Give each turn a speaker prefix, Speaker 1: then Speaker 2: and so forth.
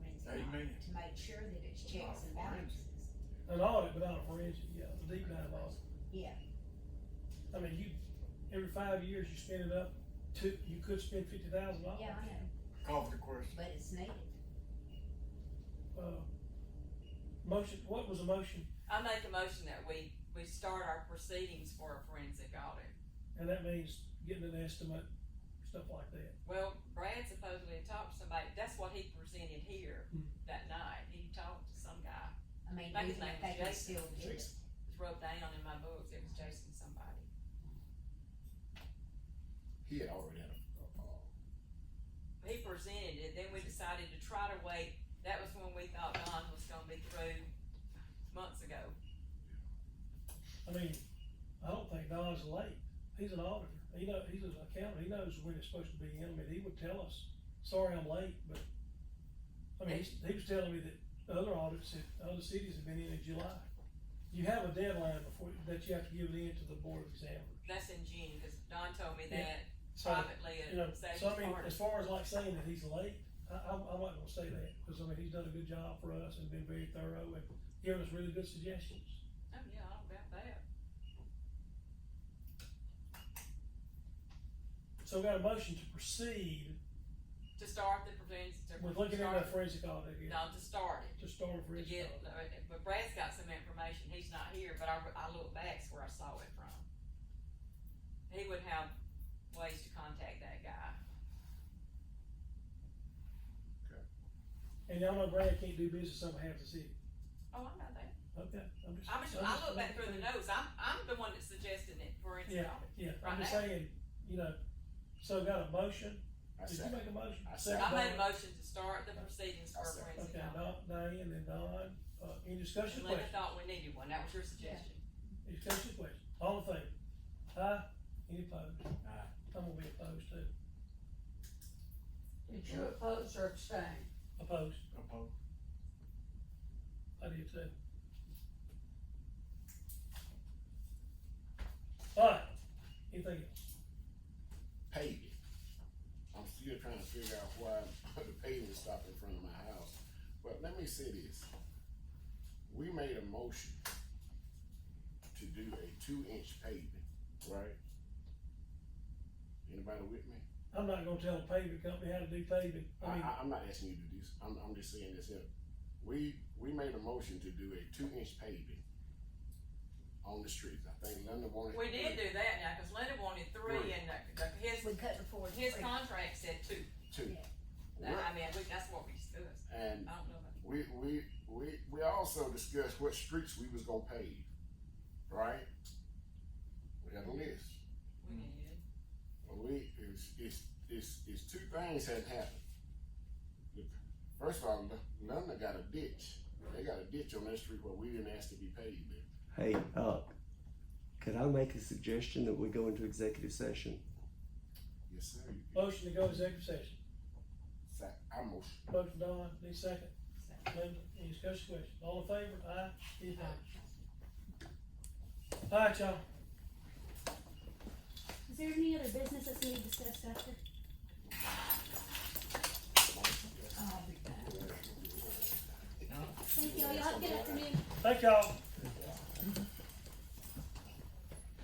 Speaker 1: make sure that it's checks and balances.
Speaker 2: An audit without a forensic, yeah, a deep dive audit.
Speaker 1: Yeah.
Speaker 2: I mean, you, every five years you spend it up, two, you could spend fifty thousand dollars.
Speaker 1: Yeah, I know,
Speaker 3: Call for the question.
Speaker 1: but it's needed.
Speaker 2: Uh, motion, what was a motion?
Speaker 4: I make a motion that we, we start our proceedings for a forensic audit.
Speaker 2: And that means getting an estimate, stuff like that.
Speaker 4: Well, Brad supposedly talked to somebody, that's what he presented here
Speaker 2: Hmm.
Speaker 4: that night, he talked to some guy,
Speaker 1: I mean,
Speaker 4: Like his
Speaker 1: even if
Speaker 4: name
Speaker 1: they
Speaker 4: was
Speaker 1: can
Speaker 4: Jason.
Speaker 1: still do it.
Speaker 4: it's wrote down in my books, it was Jason somebody.
Speaker 3: He had already had a, uh,
Speaker 4: He presented it, then we decided to try to wait, that was when we thought Don was gonna be through months ago.
Speaker 2: I mean, I don't think Don's late. He's an auditor. He know, he's an accountant. He knows when it's supposed to be in. I mean, he would tell us, sorry, I'm late, but. I mean, he's- he was telling me that the other audits at other cities have been in in July. You have a deadline before, that you have to give it in to the board examiner.
Speaker 4: That's in June, cause Don told me
Speaker 2: Yeah.
Speaker 4: that
Speaker 2: So,
Speaker 4: privately
Speaker 2: you know,
Speaker 4: at Sage's
Speaker 2: so I mean,
Speaker 4: party.
Speaker 2: as far as like saying that he's late, I, I, I'm not gonna say that, cause I mean, he's done a good job for us and been very thorough and given us really good suggestions.
Speaker 4: Oh, yeah, all about that.
Speaker 2: So we got a motion to proceed
Speaker 4: To start the prevents, to.
Speaker 2: with looking at
Speaker 4: start-
Speaker 2: that forensic audit again.
Speaker 4: No, to start it.
Speaker 2: to start a
Speaker 4: To
Speaker 2: bridge
Speaker 4: get,
Speaker 2: project.
Speaker 4: but Brad's got some information, he's not here, but I, I look back's where I saw it from. He would have ways to contact that guy.
Speaker 2: And y'all know Brad can't do business over half the city.
Speaker 4: Oh, I know that.
Speaker 2: Okay, I'm just.
Speaker 4: I'm just,
Speaker 2: I'm
Speaker 4: I
Speaker 2: just-
Speaker 4: look back through the notes, I'm, I'm the one that suggested it for instance.
Speaker 2: Yeah, yeah,
Speaker 4: Right
Speaker 2: I'm just
Speaker 4: now.
Speaker 2: saying, you know, so got a motion,
Speaker 3: I
Speaker 2: did you
Speaker 3: said,
Speaker 2: make a motion?
Speaker 3: I
Speaker 2: Second
Speaker 4: I
Speaker 3: second.
Speaker 4: made a
Speaker 2: by-
Speaker 4: motion to start the proceedings for
Speaker 3: I said-
Speaker 4: forensic
Speaker 2: Okay,
Speaker 4: audit.
Speaker 2: Don- Diane and Don, uh, any discussion
Speaker 4: And Linda
Speaker 2: question?
Speaker 4: thought we needed one, that was your suggestion.
Speaker 2: Any discussion question? All in favor? Aye, any opposed?
Speaker 3: Aye.
Speaker 2: I'm gonna be opposed too,
Speaker 5: Did you oppose or abstain?
Speaker 2: opposed,
Speaker 3: Opposed.
Speaker 2: I do too. Alright, anything else?
Speaker 3: paving. I'm still trying to figure out why the paving stopped in front of my house. But let me say this. We made a motion to do a two inch paving, right? Anybody with me?
Speaker 2: I'm not gonna tell a paving company how to do paving, I
Speaker 3: I,
Speaker 2: mean,
Speaker 3: I, I'm not asking you to do this, I'm, I'm just saying this here. We, we made a motion to do a two inch paving on the streets. I think Linda wanted.
Speaker 4: We did do that now, cause Linda wanted three
Speaker 3: Three.
Speaker 4: and the- the- his,
Speaker 1: We cut the four.
Speaker 4: his contract said two.
Speaker 3: Two.
Speaker 4: I mean, we- that's what we discussed,
Speaker 3: And
Speaker 4: I don't know. about-
Speaker 3: we we we we also discussed what streets we was gonna pave, right? We had a list.
Speaker 4: We did.
Speaker 3: We it's it's it's, it's two things had happened. The- First of all, London got a ditch. They got a ditch on that street where we didn't ask to be paved. in.
Speaker 6: Hey, uh, could I make a suggestion that we go into executive session?
Speaker 3: Yes, sir. you can-
Speaker 2: motion to go to executive session.
Speaker 3: Sa- I motion.
Speaker 2: Motion Don, need a second? Linda, any discussion question? All in favor? Aye. Any opposed? All right, y'all.
Speaker 7: Is there any other business that's need discussed after?
Speaker 1: Oh,
Speaker 7: Thank you, y'all have a good afternoon.
Speaker 2: Thank y'all.